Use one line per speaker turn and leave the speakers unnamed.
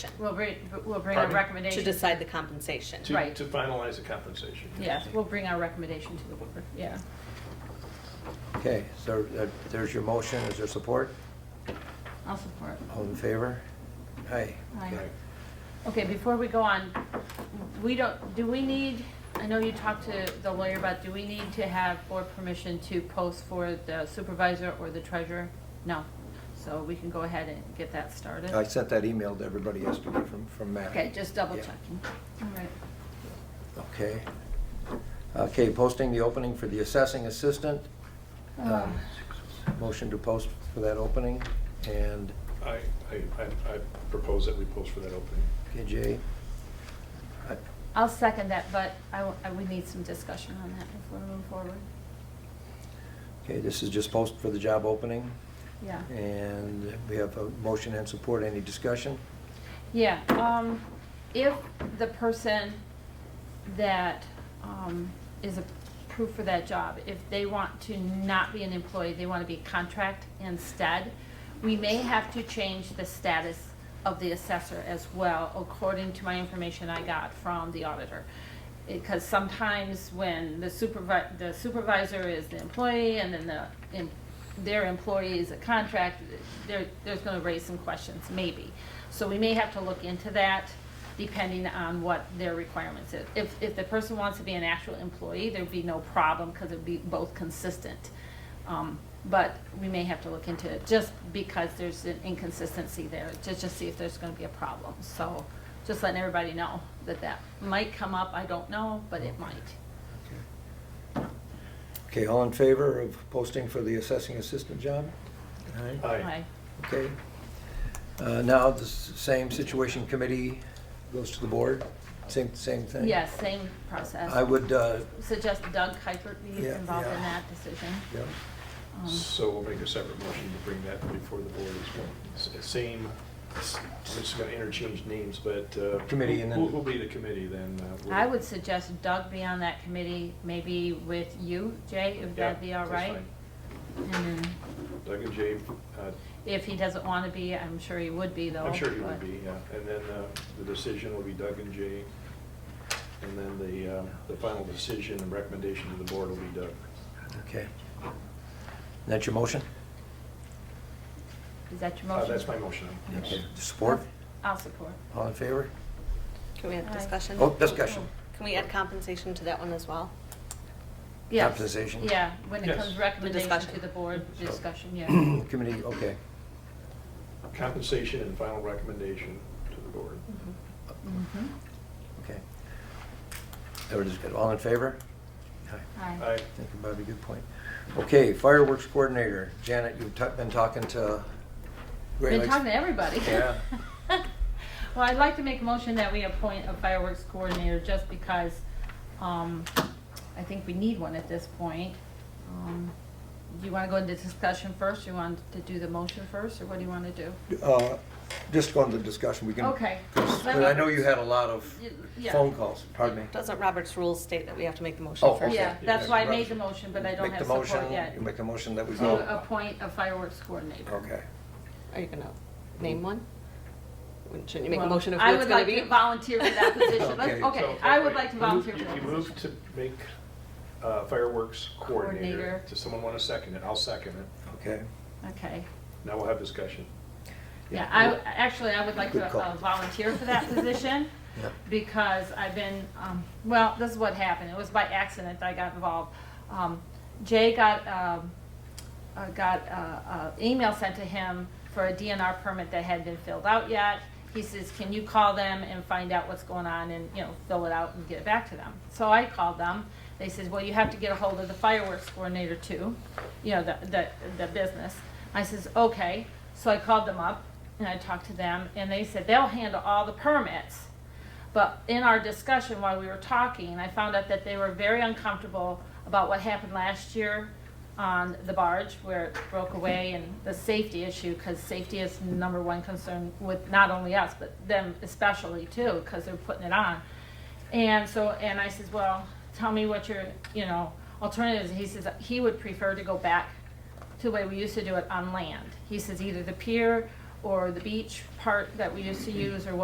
We'll bring, we'll bring our
Pardon?
recommendation.
to decide the compensation.
to,
Right.
to finalize the compensation.
Yes, we'll bring our recommendation to the board, yeah.
Okay, so uh, there's your motion, is there support?
I'll support.
All in favor? Aye.
Aye.
Okay.
Okay, before we go on, we don't, do we need, I know you talked to the lawyer about, do we need to have board permission to post for the supervisor or the treasurer? No, so we can go ahead and get that started.
I sent that email to everybody yesterday from, from Matt.
Okay, just double
Yeah.
checking. All right.
Okay. Okay, posting the opening for the assessing assistant.
Uh.
Um, Motion to post for that opening, and
I, I, I- I propose that we post for that opening.
okay, Jay. Uh, I-
I'll second that, but I, w- I would need some discussion on that before we move forward.
Okay, this is just post for the job opening,
Yeah.
and we have a motion and support, any discussion?
Yeah, um, if the person that, um, is approved for that job, if they want to not be an employee, they wanna be a contract instead, we may have to change the status of the assessor as well, according to my information I got from the auditor. Because sometimes when the supervi- the supervisor is the employee and then the, em- their employee is a contract, there, there's gonna raise some questions, maybe. So we may have to look into that, depending on what their requirements is. If, if the person wants to be an actual employee, there'd be no problem, because it'd be both consistent. Um, But we may have to look into it, just because there's an inconsistency there, to just see if there's gonna be a problem. So, just letting everybody know that that might come up, I don't know, but it might.
Okay, all in favor of posting for the assessing assistant job? Aye.
Aye.
Okay. Uh, Now, the s- same situation committee goes to the board, same, same thing?
Yes, same process.
I would, uh,
Suggest Doug Kuipert be
Yeah,
involved in
yeah.
that decision.
yeah,
Um,
So we'll make a separate motion to bring that before the board as well. S- Same, s- I'm just gonna interchange names, but. uh,
Committee and then-
Who will be the committee then? uh, we'll-
I would suggest Doug be on that committee, maybe with you, Jay, if
Yeah,
that'd be all
that's
right.
fine.
And then
Doug and Jay, uh,
if he doesn't want to be, I'm sure he would be though.
I'm sure you would
but-
be, yeah. And then uh, the decision will be Doug and Jay. And then the, uh, the final decision and recommendation to the board will be Doug.
okay. That's your motion?
Is that your
Uh,
motion?
That's my motion. yes.
Okay. Support?
I'll support.
All in favor?
Can we have
Aye.
discussion?
Oh, discussion.
Can we add compensation to that one as well?
Yes.
Compensation?
Yeah, when it
Yes.
comes recommendation
discussion.
to the board,
So-
discussion, yeah.
Committee, okay.
Compensation and final recommendation to the board.
Mhm.
Okay. Everybody's good. All in favor? Aye.
Aye.
Aye.
Thank you, Bobby. Good point. Okay, fireworks coordinator. Janet, you've ta- been talking to Great
Been
Lakes.
talking to everybody.
Yeah.
Well, I'd like to make a motion that we appoint a fireworks coordinator just because, um, I think we need one at this point. Um, Do you wanna go into discussion first? You want to do the motion first, or what do you wanna do?
Uh, Just going to discussion, we can.
Okay.
Because I know you had a lot of
Y- yeah.
phone calls, pardon me.
Doesn't Robert's rules state that we have to make the motion
Oh,
first?
Yeah,
okay.
that's why I made the
Right.
motion, but I don't
Make the
have support
motion-
yet. Oh,
You make a motion that we go.
To appoint a fireworks coordinator.
Okay.
Are you gonna name one? Wouldn't- Shouldn't you make a
Well,
motion of who it's gonna
I would
be?
like to volunteer for that position. Let's-
Okay.
Okay,
So,
I would
wait,
like to
you-
volunteer for
you-
that
You
position.
moved to make uh, fireworks coordinator.
Coordinator.
Does someone want to second it? I'll second it.
Okay.
Okay.
Now we'll have discussion.
Yeah, I, actually, I would like to
Good call.
uh, volunteer for that position
Yeah.
because I've been, um, well, this is what happened. It was by accident I got involved. Um, Jay got, um, uh, got an email sent to him for a DNR permit that hadn't been filled out yet. He says, can you call them and find out what's going on and, you know, fill it out and get it back to them? So I called them. They said, well, you have to get a hold of the fireworks coordinator too, you know, the, the, the business. I says, okay. So I called them up and I talked to them and they said, they'll handle all the permits. But in our discussion while we were talking, I found out that they were very uncomfortable about what happened last year on the barge where it broke away and the safety issue, because safety is number one concern with not only us, but them especially too, because they're putting it on. And so, and I says, well, tell me what your, you know, alternatives. He says he would prefer to go back to the way we used to do it on land. He says either the pier or the beach part that we used to use or